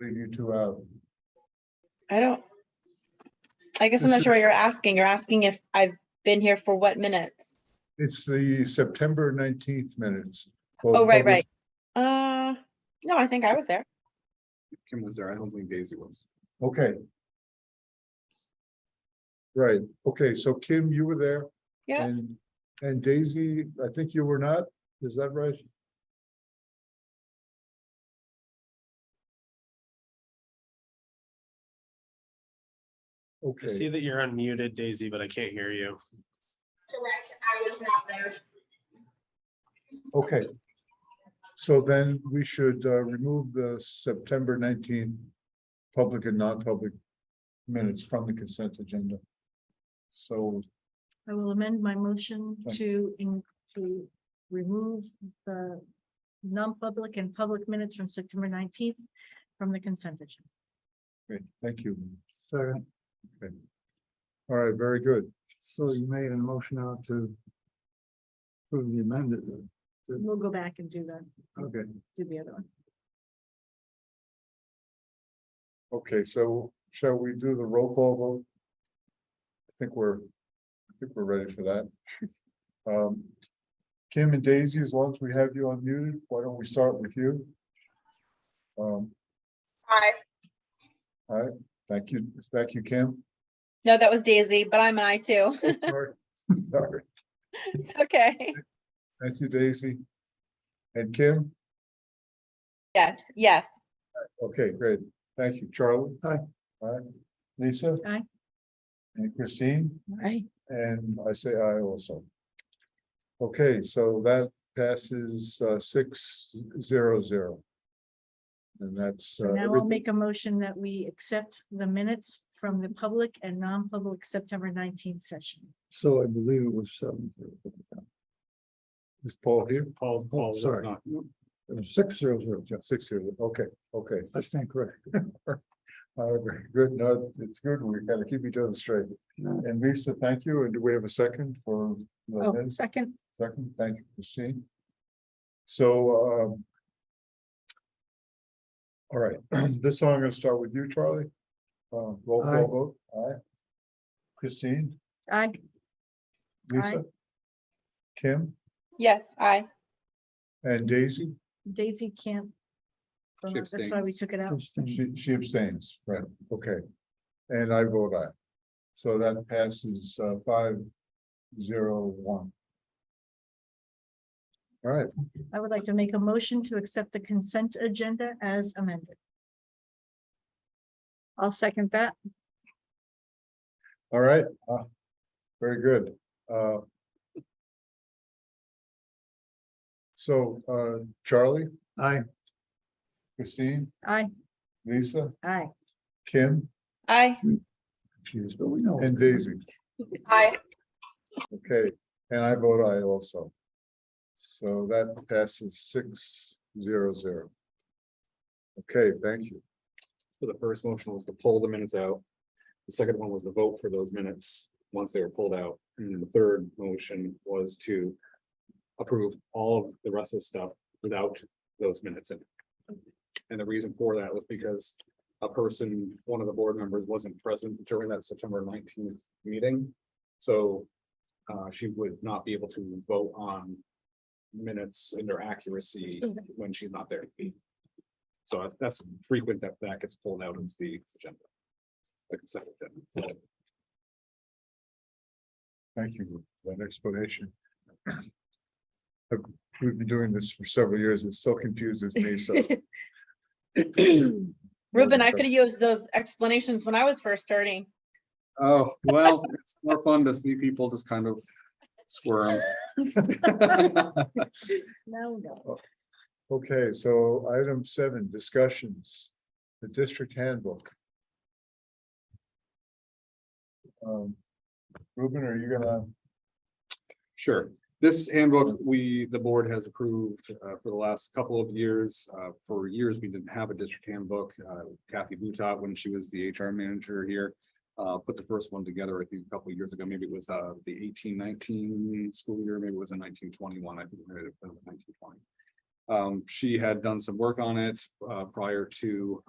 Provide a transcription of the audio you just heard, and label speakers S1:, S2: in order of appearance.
S1: leave you two out.
S2: I don't. I guess I'm not sure what you're asking. You're asking if I've been here for what minutes?
S1: It's the September nineteenth minutes.
S2: Oh, right, right. Uh, no, I think I was there.
S3: Kim was there. I don't think Daisy was.
S1: Okay. Right, okay, so Kim, you were there.
S2: Yeah.
S1: And, and Daisy, I think you were not, is that right?
S4: I
S1: Okay,
S4: see that you're unmuted, Daisy, but I can't hear you.
S5: Correct, I was not there.
S1: okay. So then we should uh, remove the September nineteenth public and non-public minutes from the consent agenda. So
S6: I will amend my motion
S1: Thank
S6: to, in- to remove the non-public and public minutes from September nineteenth from the consent agenda.
S1: Great, thank you.
S7: Second,
S1: All right, very good.
S7: so you made a motion out to approve the amended,
S6: We'll go back and do the,
S7: okay,
S6: do the other one.
S1: Okay, so shall we do the roll call vote? I think we're, I think we're ready for that. Um, Kim and Daisy, as long as we have you unmuted, why don't we start with you? Um,
S5: Aye.
S1: thank you, thank you, Kim.
S2: No, that was Daisy, but I'm an I too.
S1: Oh, sorry. Sorry.
S2: It's okay.
S1: Thank you, Daisy. And Kim?
S2: Yes, yes.
S1: Okay, great. Thank you, Charlie.
S7: Aye.
S1: Aye. Lisa?
S6: Aye.
S1: And Christine?
S6: Right.
S1: And I say aye also. Okay, so that passes uh six zero zero. And that's.
S6: So
S1: uh,
S6: now I'll
S1: everything.
S6: make a motion that we accept the minutes from the public and non-public September nineteenth session.
S7: so I believe it was seven.
S1: Is Paul here?
S3: Paul, Paul was
S7: sorry.
S3: not.
S7: Six zero zero,
S1: Yeah, Six zero, okay, okay.
S7: I stand corrected.
S1: Uh, very Good, no, it's good. We gotta keep each other straight.
S7: Yeah.
S1: And Lisa, thank you. And do we have a second for? the minutes?
S6: Oh, second.
S1: Second, thank you, Christine. So, um. All right, this song I'm gonna start with you, Charlie. Uh, roll
S7: Aye.
S1: call vote, aye. Christine,
S6: Aye.
S1: Lisa. Kim
S2: Yes, I.
S1: and Daisy,
S6: Daisy can't.
S3: She
S6: That's why we
S3: abstains.
S6: took it out.
S7: Abstain.
S1: she, she abstains, right, okay. And I vote aye. So that passes, uh, five, zero, one. All right,
S6: I would like to make a motion to accept the consent agenda as amended. I'll second that.
S1: all right, uh, very good, uh. So, uh, Charlie?
S7: Aye.
S1: Christine,
S6: Aye.
S1: Lisa,
S6: Aye.
S1: Kim,
S2: I.
S7: confused, but we know.
S1: and Daisy.
S5: Aye.
S1: Okay, and I vote aye also. So that passes six zero zero. Okay, thank you.
S3: So the first motion was to pull the minutes out. The second one was the vote for those minutes, once they were pulled out. And then the third motion was to approve all of the rest of the stuff without those minutes in. it. And the reason for that was because a person, one of the board members wasn't present during that September nineteenth meeting. So uh, she would not be able to vote on minutes and their accuracy when she's not there. So that's- that's frequent that that gets pulled out of the agenda. The consent agenda.
S1: Thank you for that explanation. I've- We've been doing this for several years. It still confuses me, so.
S2: Ruben, I could have used those explanations when I was first starting.
S3: Oh, well, it's more fun to see people just kind of squirm.
S6: No, no.
S1: Okay, so item seven, discussions, the district handbook. Um, Ruben, are you gonna?
S3: Sure. This handbook, we, the board has approved uh, for the last couple of years. Uh, For years, we didn't have a district handbook. Uh, Kathy Boutot, when she was the HR manager here, uh, put the first one together, I think, a couple of years ago. Maybe it was uh, the eighteen nineteen school year, maybe it was in nineteen twenty-one, I think. Um, nineteen twenty. She had done some work on it uh, prior to